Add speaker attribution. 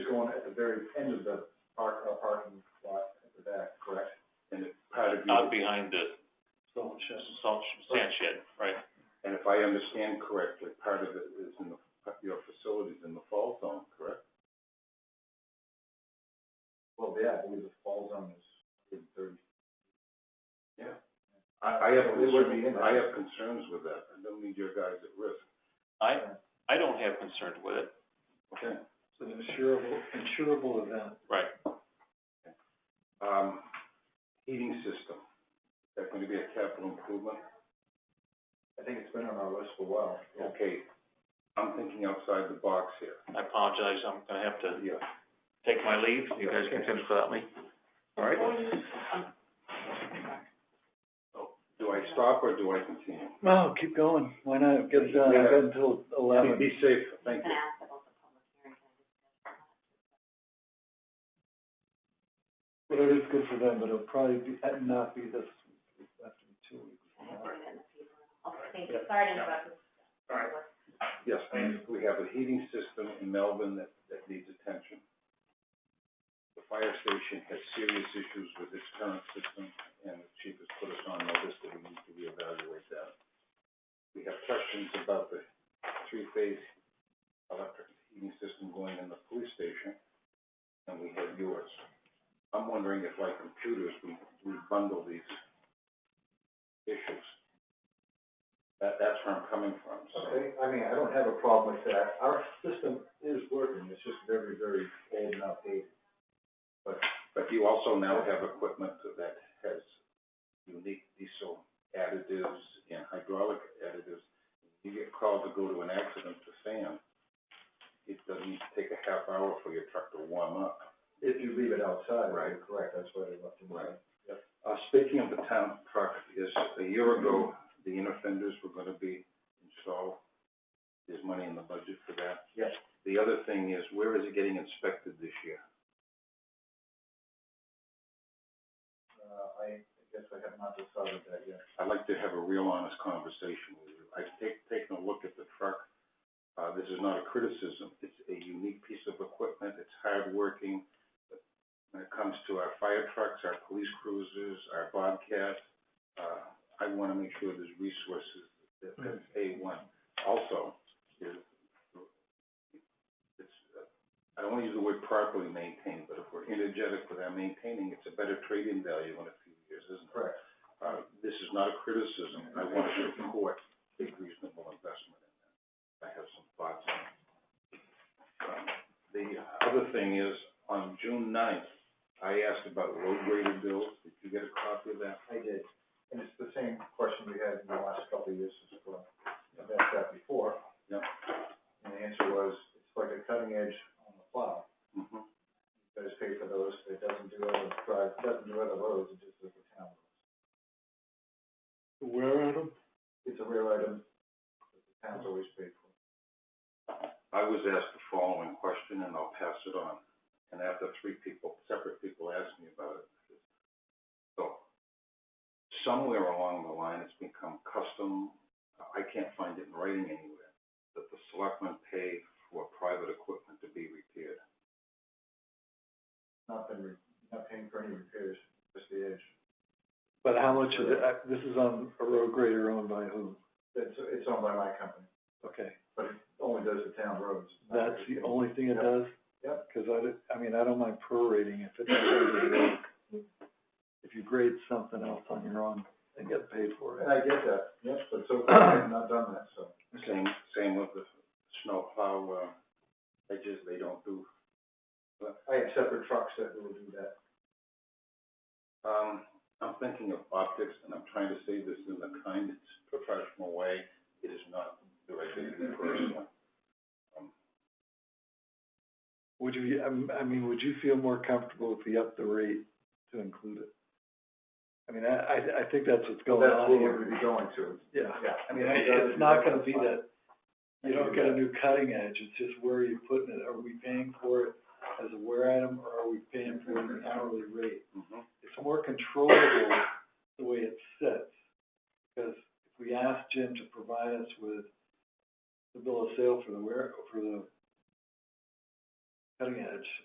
Speaker 1: one at the very end of the park, uh, parking lot at the back, correct?
Speaker 2: and it part of
Speaker 3: out
Speaker 2: you,
Speaker 3: behind the salt, sh- sand shed, right?
Speaker 2: and if I understand correctly, part of it is in the, your facilities in the fall zone, correct?
Speaker 1: Well, yeah, I believe the fall zone is in thirty.
Speaker 2: Yeah. I, I have
Speaker 1: It would be
Speaker 2: concerns,
Speaker 1: in there.
Speaker 2: I have concerns with that, I don't need your guys at risk.
Speaker 3: I, I don't have concerns with it,
Speaker 2: Okay.
Speaker 1: It's an insurable, insurable event.
Speaker 3: right?
Speaker 2: Um, heating system, is that gonna be a capital improvement?
Speaker 1: I think it's been on our list for a while.
Speaker 2: Okay, I'm thinking outside the box here.
Speaker 3: I apologize, I'm gonna have to
Speaker 2: Yeah.
Speaker 3: take my leave, you guys can finish without me, all right?
Speaker 2: Do I stop or do I continue?
Speaker 4: Well, keep going, why not, get it done,
Speaker 2: Yeah.
Speaker 4: I've got until eleven.
Speaker 2: Be safe, thank you.
Speaker 4: Whatever is good for them, but it'll probably be, uh, not be this, week. it'll have to be two weeks.
Speaker 2: Yes, we have a heating system in Melbourne that, that needs attention. The fire station has serious issues with its current system, and the chief has put us on notice that we need to reevaluate that. We have questions about the three-phase electric heating system going in the police station, and we have yours. I'm wondering if like computers, we, we bundle these issues. That, that's where I'm coming from, so.
Speaker 1: Okay, I mean, I don't have a problem with that. Our system is working, it's just very, very old and outdated.
Speaker 2: But you also now have equipment that has unique diesel additives and hydraulic additives. You get called to go to an accident to sand, it doesn't take a half hour for your truck to warm up.
Speaker 1: If you leave it outside,
Speaker 2: Right.
Speaker 1: you're correct, that's why they left it.
Speaker 2: Right. Uh, speaking of the town truck, is a year ago, the inner fenders were gonna be installed. There's money in the budget for that.
Speaker 1: Yes.
Speaker 2: The other thing is, where is it getting inspected this year?
Speaker 1: Uh, I guess I have not decided that yet.
Speaker 2: I'd like to have a real honest conversation with you. I've take, taken a look at the truck. Uh, this is not a criticism. It's a unique piece of equipment. It's hardworking. But When it comes to our fire trucks, our police cruisers, our Bobcat, uh, I wanna make sure there's resources that, that's A one. Also, is, it's, uh, I don't wanna use the word properly maintained, but if we're energetic with our maintaining, it's a better trade-in value in a few years, isn't it?
Speaker 1: Correct.
Speaker 2: uh, this is not a criticism, I want to support a reasonable investment in that. I have some thoughts on it. Um, The other thing is, on June ninth, I asked about road grader bills, did you get a copy of that?
Speaker 1: I did, and it's the same question we had in the last couple of years as well. I've asked that before.
Speaker 2: Yep.
Speaker 1: And the answer was, it's like a cutting edge on the plow. You
Speaker 2: Mhm.
Speaker 1: guys pay for those, it doesn't do other drive, doesn't do other roads, it just does the town. roads.
Speaker 4: Where at
Speaker 1: It's a rare item, that the town's always paid for.
Speaker 2: I was asked the following question, and I'll pass it on, and after three people, separate people asked me about it. So, somewhere along the line, it's become custom, I can't find it in writing anywhere, that the selectmen pay for private equipment to be repaired.
Speaker 1: Not been, re- not paying for any repairs, just the edge.
Speaker 4: But how much of the, uh, this is on a road grader owned by who?
Speaker 1: It's, it's owned by my company,
Speaker 4: Okay,
Speaker 1: but it only does the town roads. not
Speaker 4: that's the
Speaker 1: everything.
Speaker 4: only thing it
Speaker 1: Yep.
Speaker 4: does?
Speaker 1: Yep.
Speaker 4: Cause I, did- I mean, I don't mind prorating if it's a road grader. If you grade something else on your own and get paid for it.
Speaker 1: And I get that, yes, but so far I've not done that, so.
Speaker 2: Same, same with the snowplow, uh, edges, they don't do,
Speaker 1: I have separate trucks that will do that.
Speaker 2: um, I'm thinking of optics, and I'm trying to say this in the kindest professional way, it is not directly to me personally.
Speaker 4: Would you, I'm- I mean, would you feel more comfortable if we upped the rate to include it? I mean, I, I, I think that's what's going
Speaker 1: That's
Speaker 4: on
Speaker 1: where
Speaker 4: here.
Speaker 1: we'd be going to.
Speaker 4: Yeah,
Speaker 1: Yeah.
Speaker 4: I mean, I- it's not gonna be that, you don't get a new cutting edge, it's just where are you putting it? Are we paying for it as a wear item, or are we paying for it an hourly rate?
Speaker 2: Mhm.
Speaker 4: It's more controllable the way it sits, because if we ask Jim to provide us with the bill of sale for the wear,